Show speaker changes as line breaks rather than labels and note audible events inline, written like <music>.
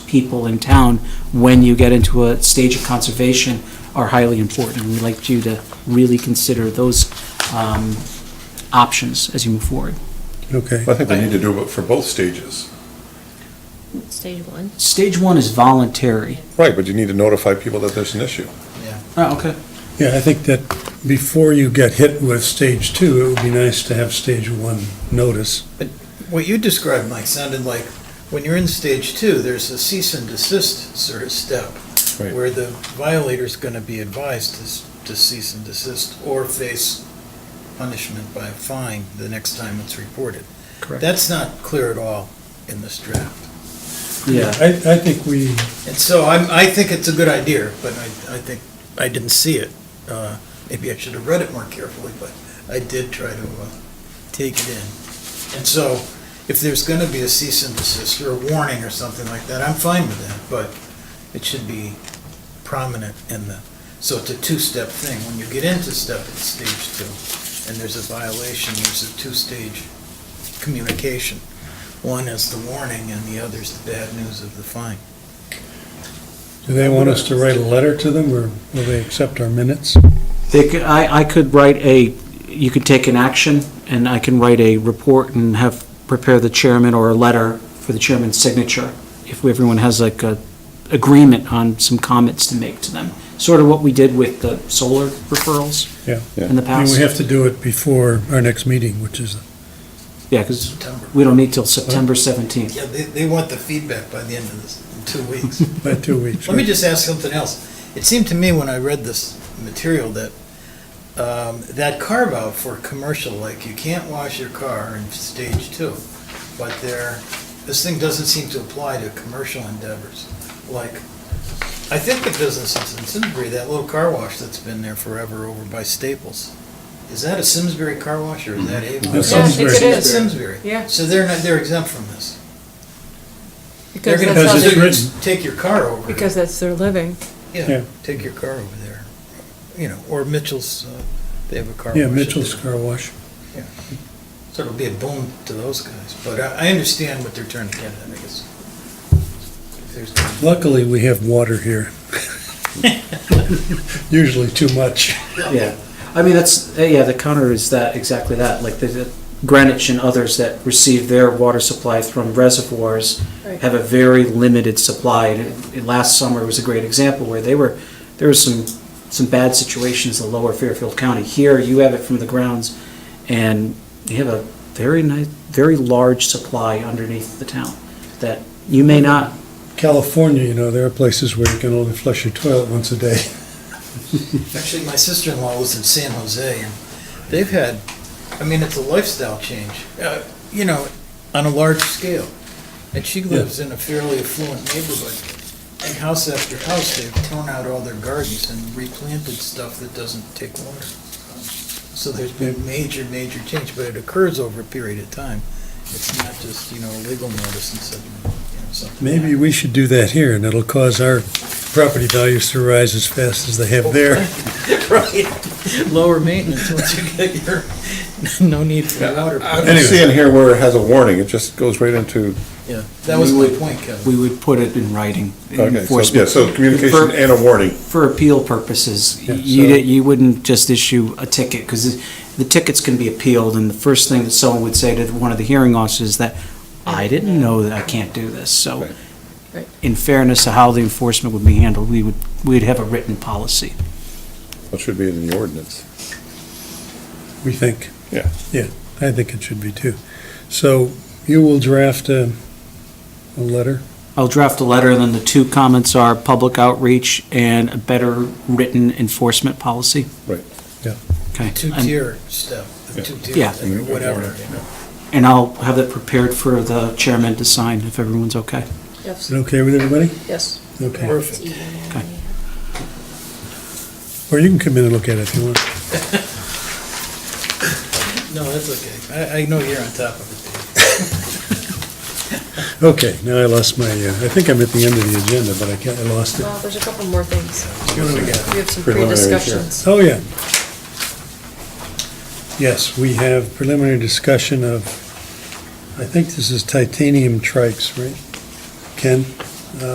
people in town when you get into a stage of conservation are highly important. We'd like you to really consider those um, options as you move forward.
Okay.
I think they need to do it for both stages.
Stage one.
Stage one is voluntary.
Right, but you need to notify people that there's an issue.
Oh, okay.
Yeah, I think that before you get hit with stage two, it would be nice to have stage one notice.
What you described, Mike, sounded like when you're in stage two, there's a cease and desist sort of step
Right.
where the violator's going to be advised to, s- to cease and desist or face punishment by a fine the next time it's reported.
Correct.
That's not clear at all in this draft.
Yeah.
I, I think we,
And so I'm, I think it's a good idea, but I, I think, I didn't see it. Uh, Maybe I should have read it more carefully, but I did try to uh, take it in. And so if there's going to be a cease and desist or a warning or something like that, I'm fine with that, but it should be prominent in the, so it's a two-step thing. When you get into step, it's stage two, and there's a violation, there's a two-stage communication. One is the warning and the other is the bad news of the fine.
do they want us to write a letter to them, or will they accept our minutes?
They could, I, I could write a, you could take an action, and I can write a report and have, prepare the chairman or a letter for the chairman's signature, if everyone has like a agreement on some comments to make to them. Sort of what we did with the solar referrals
Yeah.
in the
I mean,
past.
we have to do it before our next meeting, which is,
Yeah, because
September.
we don't
Oh.
need till September 17th.
Yeah, they, they want the feedback by the end of this, in two weeks.
by two weeks.
Let me
right?
just ask something else. It seemed to me when I read this material that, um, that carve out for commercial, like you can't wash your car in stage two, but there, this thing doesn't seem to apply to commercial endeavors. Like, I think the businesses in Simsbury, that little car wash that's been there forever over by Staples, is that a Simsbury car wash or is that Avon?
That's Yeah, I think it Simsbury.
is.
Simsbury.
Yeah.
So they're not, they're exempt from this. They're
Because
gonna,
that's how
they're
they-
gonna just take your car over.
Because that's their living.
Yeah.
Yeah, take your car over there, you know, or Mitchell's, uh, they have a car wash.
Yeah,
up
Mitchell's
there.
Car Wash.
So it'll be a boon to those guys, but I, I understand what they're trying to get at, I guess. If there's gonna be-
Luckily, we have water
<laughs>
here. Usually too much.
Yeah, I mean, that's, uh, yeah, the counter is that, exactly that, like the- the Greenwich and others that receive their water supply from reservoirs
Right.
have a very limited supply, and it- it- last summer was a great example where they were, there was some, some bad situations in lower Fairfield County. Here, you have it from the grounds, and you have a very nice, very large supply underneath the town that you may not,
California, you know, there are places where you can only flush your toilet once a day.
Actually, my sister-in-law lives in San Jose, and they've had, I mean, it's a lifestyle change, uh, you know, on a large scale. And she lives in a fairly affluent neighborhood, and house after house, they've torn out all their gardens and replanted stuff that doesn't take water. So there's been major, major change, but it occurs over a period of time. It's not just, you know, a legal notice and suddenly, you know, something.
Maybe we should do that here, and it'll cause our property values to rise as fast as they have there.
Right. Lower maintenance once you get your, <laughs> no need for water.
I'm just seeing here where it has a warning, it just goes right into,
Yeah, that was my point, Kevin.
we would put it in writing. in
okay, so, yeah,
enforcement.
so
For-
communication and a warning.
For appeal purposes,
Yeah,
you,
so-
di- you wouldn't just issue a ticket, because the tickets can be appealed, and the first thing that someone would say to one of the hearing officers is that, I didn't know that I can't do this, so
Right.
Right.
in fairness to how the enforcement would be handled, we would, we'd have a written policy.
That should be in the ordinance.
We think.
Yeah.
Yeah, I think it should be too. So you will draft a, a letter?
I'll draft a letter, and then the two comments are public outreach and a better written enforcement policy.
Right.
Yeah.
Okay. And-
Two-tier step,
Yeah.
the two-tier,
Yeah.
thing, or whatever, you know.
And I'll have it prepared for the chairman to sign, if everyone's okay.
Is
Yes.
it okay with everybody?
Yes.
Okay.
Perfect.
Or you can come in and look at it if you want.
No, that's okay. I, I know you're on top of it. Dave.
Okay, now I lost my, uh, I think I'm at the end of the agenda, but I can't, I lost it.
Well, there's a couple more things.
What do we got?
We have some
Preliminaries, yeah.
pre-discussions.
Oh, yeah. Yes, we have preliminary discussion of, I think this is titanium trikes, right? Ken?